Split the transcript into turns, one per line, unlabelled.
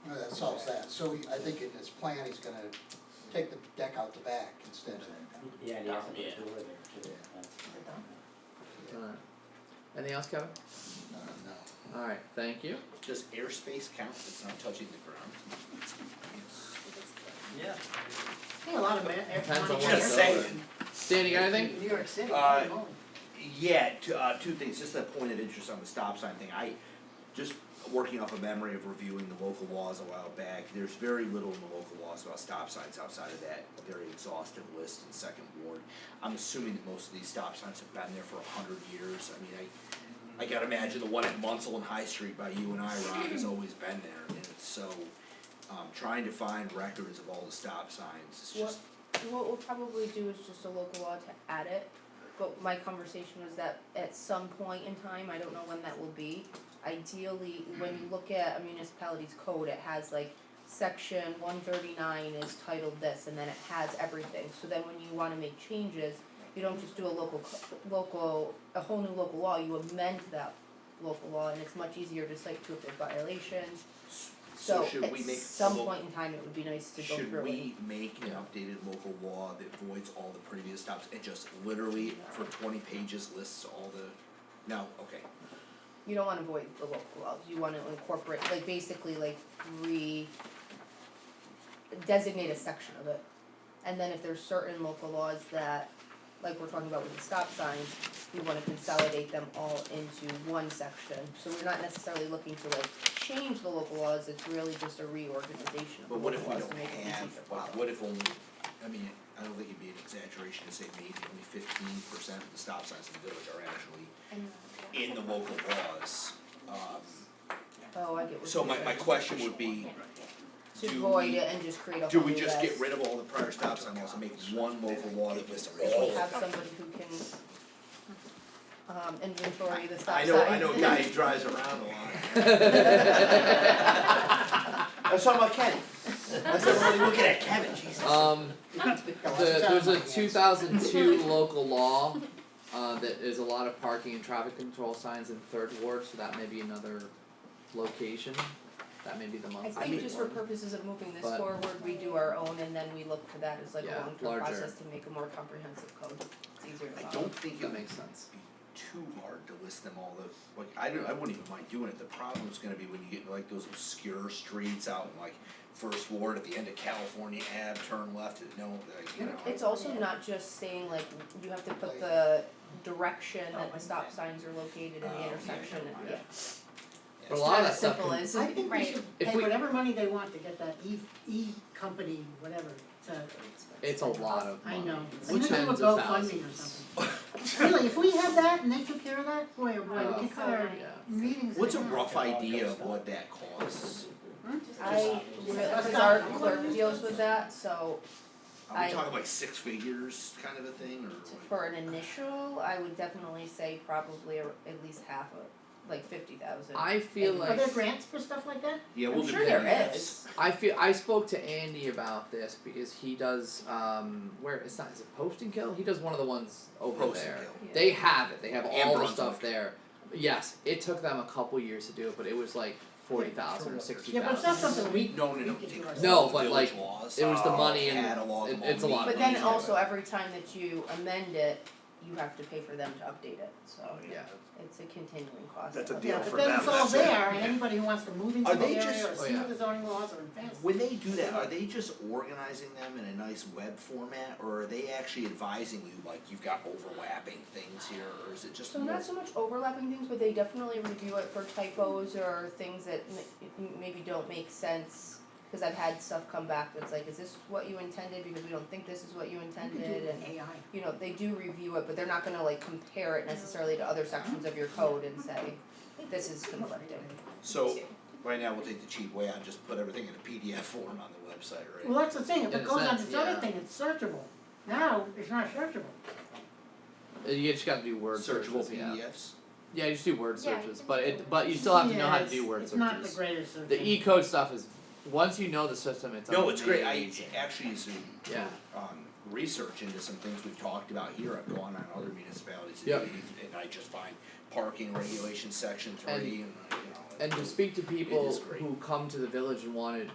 solves that, so he- I think in his plan, he's gonna take the deck out the back instead of.
Yeah, and he has to put
Yeah.
a door there too.
Alright. Anything else, Kevin?
No, no.
Alright, thank you.
Does airspace count if it's not touching the ground?
Yeah.
Hey, a lot of man,
Depends on
everyone
what it's
Just saying.
over. Dan, you got anything?
New York City,
Uh,
holy moly.
Yeah, two, uh, two things, just a point of interest on the stop sign thing, I, just working off a memory of reviewing the local laws a while back, there's very little in the local laws about stop signs outside of that very exhaustive list in second ward. I'm assuming that most of these stop signs have been there for a hundred years, I mean, I, I gotta imagine the one at Munsell and High Street by you and I, Rob, has always been there, and it's so, um, trying to find records of all the stop signs is just,
What we'll probably do is just a local law to add it, but my conversation was that at some point in time, I don't know when that will be. Ideally, when you look at a municipality's code, it has like section one thirty-nine is titled this, and then it has everything. So then when you wanna make changes, you don't just do a local, co- local, a whole new local law, you amend that local law, and it's much easier to cite to if there are violations.
so
So
should
at
we make
some
local-
point in time, it would be nice to go through it.
Should we make an updated local law that voids all the previous stops and just literally for twenty pages lists all the, no, okay.
you don't wanna void the local laws, you wanna incorporate, like basically like re designate a section of it. And then if there's certain local laws that, like we're talking about with the stop signs, we wanna consolidate them all into one section. So we're not necessarily looking to like change the local laws, it's really just a reorganization of the
But what
local
if we
laws
don't
to make it easy
have,
to follow.
like, what if only, I mean, I don't think it'd be an exaggeration to say maybe only fifteen percent of the stop signs in the village are actually in the local laws. Um,
Oh, I get what you're
so my, my
saying.
question would be,
To
do
void
we-
it and just create a
do
whole
we
new
just get
list.
rid of all the prior stop sign laws and make one local law that lists all of
If
them?
we have somebody who can um inventory the stop
I
signs.
know, I know a guy who drives around a lot. I was talking about Ken. I said, well, you're looking at Kevin, Jesus.
Um,
Got lots of
the,
time
there's
on
a
my hands.
two thousand two local law, uh, that is a lot of parking and traffic control signs in third ward, so that may be another location. That may be the
I
month.
think just for purposes of moving this
But-
forward, we do our own and then we look to that as like a
Yeah,
long-term
larger.
process to make a more comprehensive code, it's easier to follow.
I don't think it
That
would be
makes sense.
too hard to list them all, the, like, I don't, I wouldn't even mind doing it, the problem's gonna be when you get like those obscure streets out in like First Ward at the end of California Ave, turn left, and no, like, you know.
It's also not just saying like, you have to put
Like-
the direction that
Oh,
the stop signs are located in
Oh, yeah,
the intersection,
yeah,
and
yeah.
yeah,
But a lot of
it's not
that
as
stuff
simple
can-
as.
I think we
Right.
should
If
pay
we-
whatever money they want to get that E, E company, whatever, to,
It's a lot of
I
money.
know.
It's
And then do a
tens of
GoFundMe or
thousands.
something. Really, if we had that and they took care of that, boy, oh boy,
Uh,
we could cut our
yeah.
meetings.
What's a
in half.
rough idea of what that costs?
I, because our clerk deals with that, so
Are we
I-
talking like six figures kind of a thing, or what?
For an initial, I would definitely say probably a- at least half of, like fifty thousand.
I feel
Are
like,
there grants for stuff like that?
Yeah, we'll
I'm
do
sure there is.
I feel, I spoke to Andy about this because he does, um, where, it's not, is it Post and Kill? He does one of the ones over
Post and
there.
Kill.
Yeah.
They have it, they have
And
all the
Brunswick.
stuff there. Yes, it took them a couple years to do it, but it was like forty thousand or sixty
Yeah, but it's
thousand.
not something we,
No, no, no.
We could do ourselves.
No, but, like, it was the
Oh,
money and-
catalog
it-
them all.
it's a lot of
But then also, every time that you amend it, you have to pay for them to update it, so
Yeah,
it's a continuing cost.
That's a
of-
deal
yeah,
for
but then it's
them,
all
that's it.
there, and anybody who wants to move into
Are
the
they
area
just-
or
Oh,
see
yeah.
what the zoning laws are advanced.
When they do that, are they just organizing them in a nice web format, or are they actually advising you like you've got overlapping things here, or is it just
So
more?
not so much overlapping things, but they definitely review it for typos or things that ma- m- maybe don't make sense. Cause I've had stuff come back that's like, is this what you intended, because we don't think this is what you
You could
intended,
do
and
an AI.
you know, they do review it, but they're not gonna like compare it necessarily to other sections of your code and say, this is conflicting.
So right now we'll take the cheap way out and just put everything in a PDF form on the website, right?
Well, that's the thing, if
In
it
a
goes on
sense,
this other
yeah.
thing, it's searchable. Now, it's not searchable.
Uh, you just gotta do word
Searchable
searches, yeah.
PDFs.
Yeah, you just do word
Yeah, you
searches,
can
but
do
it,
word
but you still have to know how to
Yes,
do word searches.
It's not the greatest search.
The E
engine.
E-code stuff is, once you know the system, it's
No, it's great, I
amazing.
actually, so
Yeah,
um research into some things we've talked about here, I've gone on other municipalities and
Yep.
do- and I just find parking regulation section three and, you know.
and to speak to
It
people
is great.
who come to the village and wanna